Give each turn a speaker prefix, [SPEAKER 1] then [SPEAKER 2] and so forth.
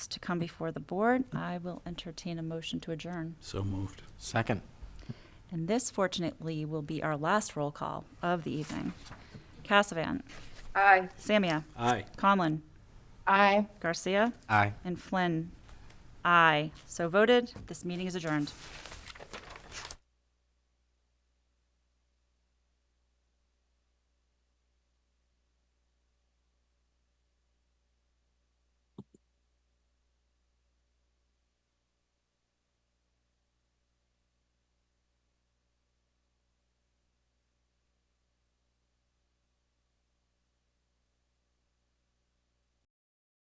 [SPEAKER 1] to come before the board, I will entertain a motion to adjourn.
[SPEAKER 2] So moved.
[SPEAKER 3] Second.
[SPEAKER 1] And this fortunately will be our last roll call of the evening. Cassavant,
[SPEAKER 4] Aye.
[SPEAKER 1] Samia,
[SPEAKER 2] Aye.
[SPEAKER 1] Conlon,
[SPEAKER 4] Aye.
[SPEAKER 1] Garcia,
[SPEAKER 3] Aye.
[SPEAKER 1] and Flynn. Aye. So voted. This meeting is adjourned.